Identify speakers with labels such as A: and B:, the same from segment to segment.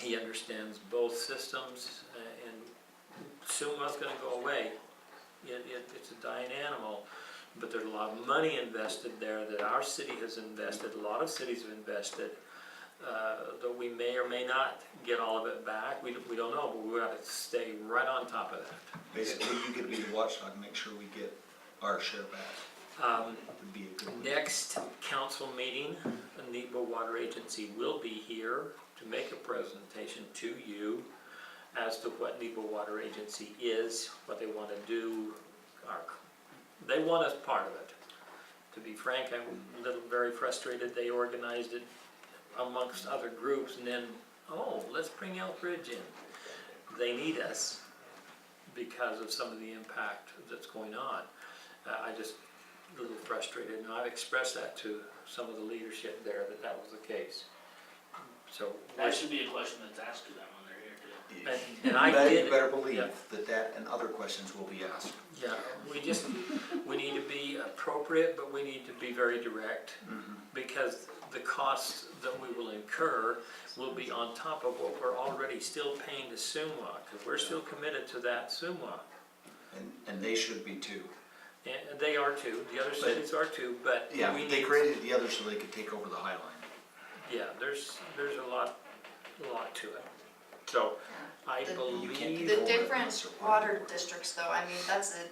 A: He understands both systems uh, and soon one's gonna go away. It, it, it's a dying animal, but there's a lot of money invested there that our city has invested, a lot of cities have invested. Uh, though we may or may not get all of it back, we, don't- we don't know, but we gotta stay right on top of that.
B: Basically, you could be the watchdog, and make sure we get our share back,
A: Um,
B: would be a good.
A: Next council meeting, the Nebo Water Agency will be here to make a presentation to you as to what Nebo Water Agency is, what they want to do, our- they want us part of it. To be frank, I'm a little very frustrated, they organized it amongst other groups and then, oh, let's bring Elk Ridge in. They need us because of some of the impact that's going on. Uh, I just a little frustrated, and I've expressed that to some of the leadership there, that that was the case. So,
C: That should be a question that's asked to them when they're here too.
A: and and I
B: You
A: did.
B: better- You better
A: yeah.
B: believe that that and other questions will be asked.
A: Yeah, we just, we need to be appropriate, but we need to be very direct,
B: Mm-hmm.
A: because the costs that we will incur will be on top of what we're already still paying to Sumwa, because we're still committed to that Sumwa.
B: And, and they should be too.
A: And they are too, the other cities are too, but
B: Yeah,
A: we
B: they
A: need,
B: created the other so they could take over the High Line.
A: yeah, there's, there's a lot, a lot to it. So, I
D: The-
B: You can't
A: believe,
D: The different water districts though, I mean, that's a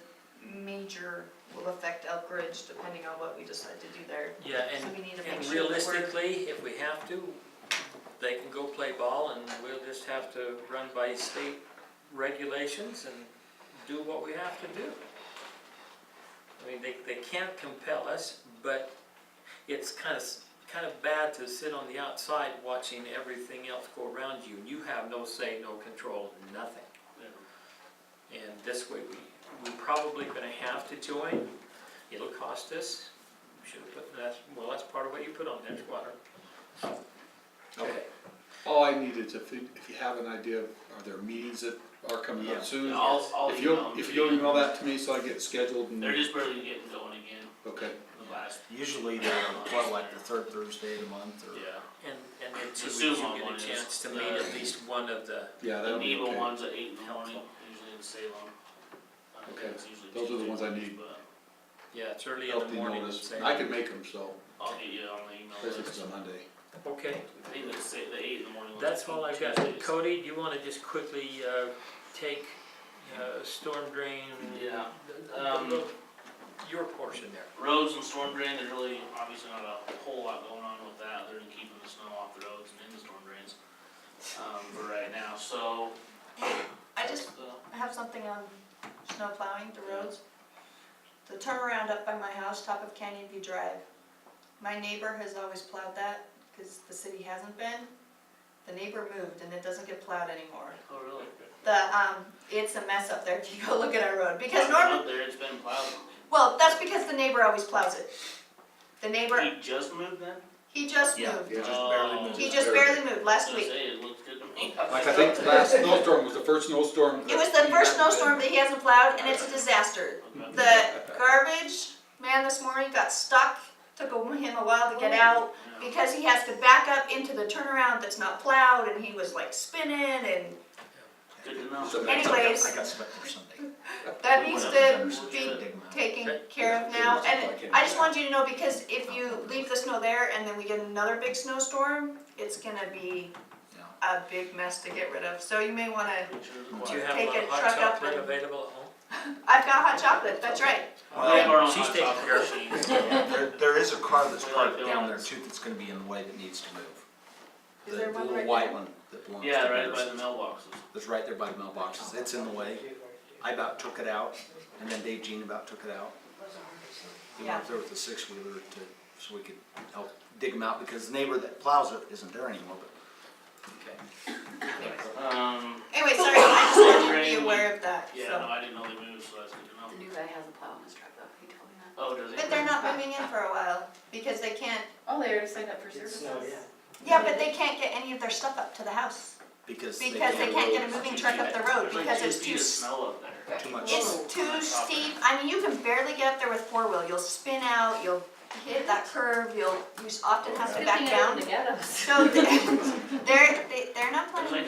D: major, will affect Elk Ridge depending on what we decide to do there.
A: yeah, and
D: So we need to make
A: And
D: sure that we're.
A: realistically, if we have to, they can go play ball and we'll just have to run by state regulations and do what we have to do. I mean, they, they can't compel us, but it's kind of, kind of bad to sit on the outside watching everything else go around you. You have no say, no control, nothing. And this way, we, we're probably gonna have to join. It'll cost us. We Should have put, that's, well, that's part of what you put on there, is water.
B: Okay.
E: All Oh, I need is if you, if you have an idea, of are there meetings that are coming
B: Yeah.
E: up soon?
C: I'll, I'll
E: If
C: email
E: you'll,
C: them.
E: if
C: to
E: you'll
C: you.
E: email that to me so I get scheduled and,
C: They're just barely getting going again,
E: okay.
C: the last,
B: Usually they're, what, like the third Thursday of the month or?
C: yeah.
A: And, and then two
C: The
A: weeks,
C: Zoom
A: you
C: one
A: get
C: is
A: a chance to meet
C: the-
A: at least one of the,
E: Yeah,
C: The
E: that'll be
C: Neva
E: okay.
C: one's at eight in the morning, usually in Salem. I think
E: Okay.
C: it's usually
E: Those are the
C: Tuesday
E: ones I
C: mornings,
E: need.
C: but
A: yeah, it's early in the
E: Healthy
A: morning.
E: notice.
A: say-
E: I can make them, so,
C: I'll get you on the email
E: especially if
C: list.
E: it's a Monday.
A: Okay,
C: I think it's the the eight in the morning. ones, I
A: that's
C: think,
A: all I've got.
C: Tuesdays.
A: Cody, do you wanna just quickly, uh, take, uh, storm drain?
C: Yeah,
A: Um,
C: um,
A: your portion there.
C: roads and storm drain, there's really obviously not a whole lot going on with that, other than keeping the snow off the roads and in the storm drains. Um, for right now, so.
D: I just
C: uh,
D: have something on snow plowing the roads. The turnaround up by my house, top of Canyon View Drive. My neighbor has always plowed that because the city hasn't been. The neighbor moved and it doesn't get plowed anymore.
C: Oh, really?
D: The, um, it's a mess up there if you go look at our road because normally
C: Up there, it's been plowed.
D: Well, that's because the neighbor always plows it. The neighbor,
C: He just moved then?
D: he just
B: Yeah,
D: moved.
B: they just barely
C: Oh.
B: moved.
D: He
B: it.
D: just barely moved last
C: I was
D: week.
C: gonna say, it looked good to me.
E: Like, I think the last snowstorm was the first snowstorm.
D: It was the first snowstorm that he hasn't plowed, and it's a disaster.
C: Okay.
D: The garbage man this morning got stuck, took a- him a while to get out,
C: Yeah.
D: because he has to back up into the turnaround that's not plowed, and he was like spinning, and
C: Good to know.
B: So-
D: Anyways.
B: I got swept for Sunday.
D: that needs to be
B: Dig 'em out.
D: taken care of now. And I just wanted you to know, because if you leave the snow there, and then we get another big snowstorm, it's gonna be
B: Yeah.
D: a big mess to get rid of, so you may wanna
C: Pictures of
A: Do you
C: water.
A: have a
D: Take
A: lot of
D: a
A: hot
D: truck up
A: chocolate
D: and-
A: available at home?
D: I've got hot chocolate, that's right.
C: They have our own
A: She's
C: hot
A: taking
C: chocolate
A: care of
C: machines.
B: There, there is a car that's
C: We like
B: parked down there
C: donuts.
B: too that's gonna be in the way that needs to move.
D: Is
B: The-
D: there
B: the
D: one
B: little
D: right
B: white
D: there?
B: one that belongs to
C: Yeah, right by
B: Bears.
C: the mailboxes.
B: That's right there by the mailboxes, it's in the way. I about took it out, and then Dave Jean about took it out. He went up there with a six-wheeler to, so we could help dig them out, because the neighbor that plows it isn't there anymore, but.
C: Um,
D: Anyway, sorry, I just wanted you to be aware of that,
C: yeah, no,
D: so.
C: I didn't know they moved, so that's good to
F: The
C: know.
F: new guy has a plow in his truck though, he told me that.
C: Oh, does it?
D: But they're not moving in for a while, because they can't,
F: Oh, they already signed up for services.
D: yeah, but they can't get any of their stuff up to the house,
B: Because they
D: because they
B: can't,
D: can't get a moving truck up the road,
C: There's like
D: because
C: two
D: it's
C: feet
D: too,
C: of
D: s-
C: snow up there.
B: too much.
D: it's too steep. I mean, you can barely get up there with four-wheel, you'll spin out, you'll hit that curve, you'll, you often have to
F: Good
D: back
F: thing I
D: down.
F: live in the ghetto, so-
D: So they're, they- they're not
C: It's
D: planning
C: like